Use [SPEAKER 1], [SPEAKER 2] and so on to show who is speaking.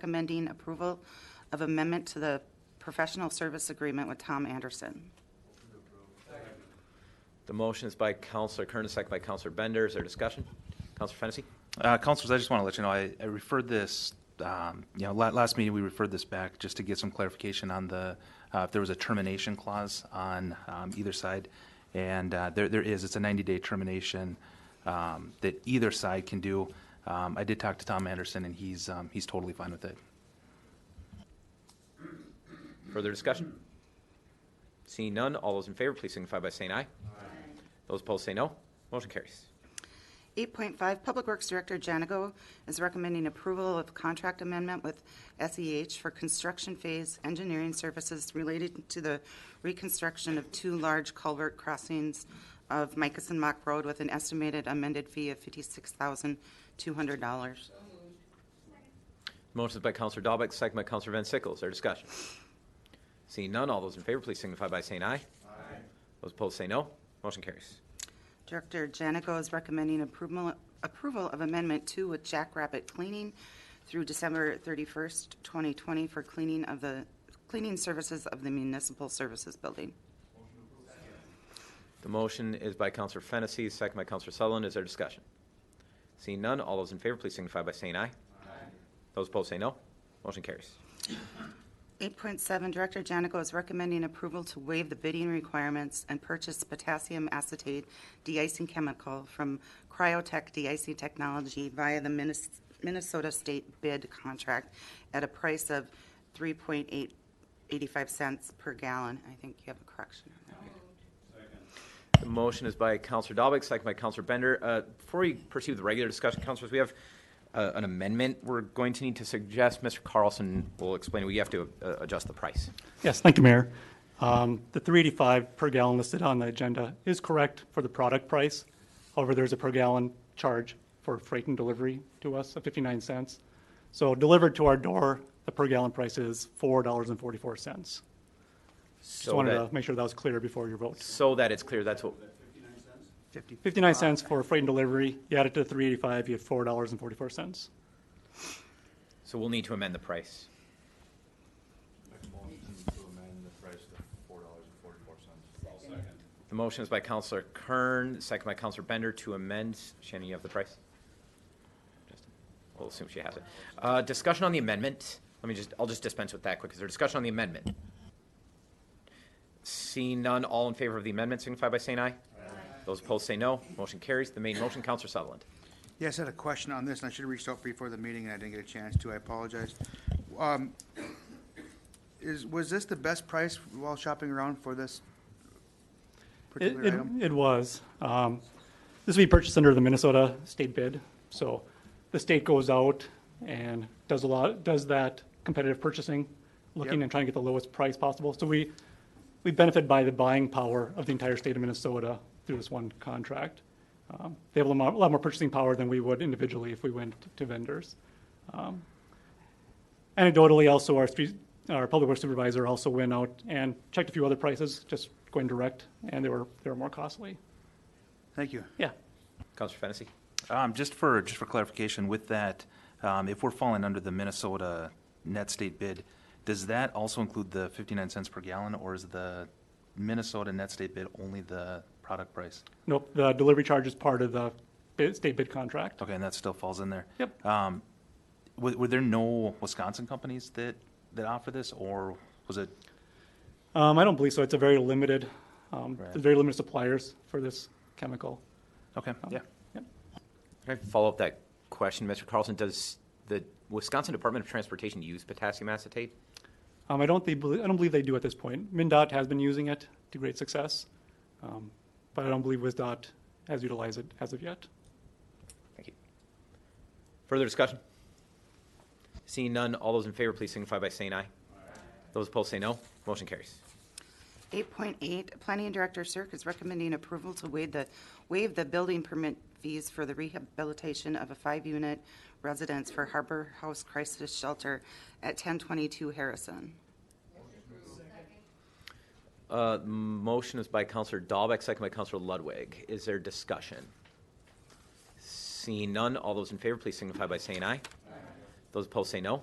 [SPEAKER 1] recommending approval of amendment to the professional service agreement with Tom Anderson.
[SPEAKER 2] The motion is by Counselor Kernis, second by Counselor Bender. Is there discussion? Counselor Fennessy?
[SPEAKER 3] Uh, Councilors, I just want to let you know, I I referred this, um, you know, la- last meeting, we referred this back just to get some clarification on the, uh, if there was a termination clause on um, either side. And uh, there there is, it's a 90-day termination um, that either side can do. Um, I did talk to Tom Anderson, and he's um, he's totally fine with it.
[SPEAKER 2] Further discussion? Seeing none, all those in favor, please signify by saying aye. Those opposed say no. Motion carries.
[SPEAKER 1] 8.5, Public Works Director Janigo is recommending approval of contract amendment with SEH for construction phase engineering services related to the reconstruction of two large culvert crossings of Micus and Mock Road with an estimated amended fee of $56,200.
[SPEAKER 2] Motion is by Counselor Dahlbeck, second by Counselor Van Sickle. Is there discussion? Seeing none, all those in favor, please signify by saying aye. Aye. Those opposed say no. Motion carries.
[SPEAKER 1] Director Janico is recommending approval approval of Amendment 2 with Jackrabbit Cleaning through December 31st, 2020 for cleaning of the, cleaning services of the Municipal Services Building.
[SPEAKER 2] The motion is by Counselor Fennessy, second by Counselor Sutherland. Is there discussion? Seeing none, all those in favor, please signify by saying aye. Aye. Those opposed say no. Motion carries.
[SPEAKER 1] 8.7, Director Janico is recommending approval to waive the bidding requirements and purchase potassium acetate de-icing chemical from Cryotech De-icing Technology via the Minis- Minnesota State bid contract at a price of 3.885 cents per gallon. I think you have a correction on that.
[SPEAKER 2] The motion is by Counselor Dahlbeck, second by Counselor Bender. Uh, Before we pursue the regular discussion, Counselors, we have uh, an amendment we're going to need to suggest. Mr. Carlson will explain, we have to uh, adjust the price.
[SPEAKER 4] Yes, thank you, Mayor. Um, The 385 per gallon listed on the agenda is correct for the product price. However, there's a per gallon charge for freight and delivery to us of 59 cents. So delivered to our door, the per gallon price is $4.44. Just
[SPEAKER 2] So
[SPEAKER 4] wanted to
[SPEAKER 2] that,
[SPEAKER 4] make sure that was clear before your vote.
[SPEAKER 2] so that it's clear, that's what,
[SPEAKER 4] 59 cents for freight and delivery, you add it to the 385, you have $4.44.
[SPEAKER 2] so we'll need to amend the price.
[SPEAKER 5] to amend the price to four dollars and forty-four cents.
[SPEAKER 2] The motion is by Counselor Kern, second by Counselor Bender to amend. Shannon, you have the price? Just- We'll assume she has it. Uh, Discussion on the amendment. Let me just, I'll just dispense with that quick. Is there discussion on the amendment? Seeing none, all in favor of the amendment signify by saying aye. Those opposed say no. Motion carries. The main motion, Counselor Sutherland.
[SPEAKER 6] Yes, I had a question on this, and I should have reached out before the meeting, and I didn't get a chance to, I apologize. Um, Is, was this the best price while shopping around for this
[SPEAKER 4] It,
[SPEAKER 6] particular
[SPEAKER 4] it,
[SPEAKER 6] item?
[SPEAKER 4] it was. Um, this will be purchased under the Minnesota state bid. So the state goes out and does a lot, does that competitive purchasing, looking
[SPEAKER 6] Yep.
[SPEAKER 4] and trying to get the lowest price possible. So we, we benefit by the buying power of the entire state of Minnesota through this one contract. Um, they have a lot more- a lot more purchasing power than we would individually if we went to vendors. Um, Anecdotally, also, our street, our public works supervisor also went out and checked a few other prices, just going direct, and they were, they were more costly.
[SPEAKER 6] Thank you.
[SPEAKER 4] Yeah.
[SPEAKER 2] Counselor Fennessy.
[SPEAKER 3] Um, Just for, just for clarification, with that, um, if we're falling under the Minnesota net state bid, does that also include the 59 cents per gallon, or is the Minnesota net state bid only the product price?
[SPEAKER 4] Nope, the delivery charge is part of the bid, state bid contract.
[SPEAKER 3] Okay, and that still falls in there?
[SPEAKER 4] Yep.
[SPEAKER 3] Um, Were were there no Wisconsin companies that, that offer this, or was it,
[SPEAKER 4] Um, I don't believe so. It's a very limited, um,
[SPEAKER 3] Right.
[SPEAKER 4] there's very limited suppliers for this chemical.
[SPEAKER 3] okay, yeah.
[SPEAKER 4] Yep.
[SPEAKER 2] Can I follow up that question, Mr. Carlson? Does the Wisconsin Department of Transportation use potassium acetate?
[SPEAKER 4] Um, I don't think, I don't believe they do at this point. MinDOT has been using it to great success. Um, but I don't believe WisDOT has utilized it as of yet.
[SPEAKER 2] Thank you. Further discussion? Seeing none, all those in favor, please signify by saying aye. Those opposed say no. Motion carries.
[SPEAKER 1] 8.8, Planning Director Cirque is recommending approval to waive the, waive the building permit fees for the rehabilitation of a five-unit residence for Harbor House Crisis Shelter at 1022 Harrison.
[SPEAKER 2] Uh, motion is by Counselor Dahlbeck, second by Counselor Ludwig. Is there discussion? Seeing none, all those in favor, please signify by saying aye. Those opposed say no.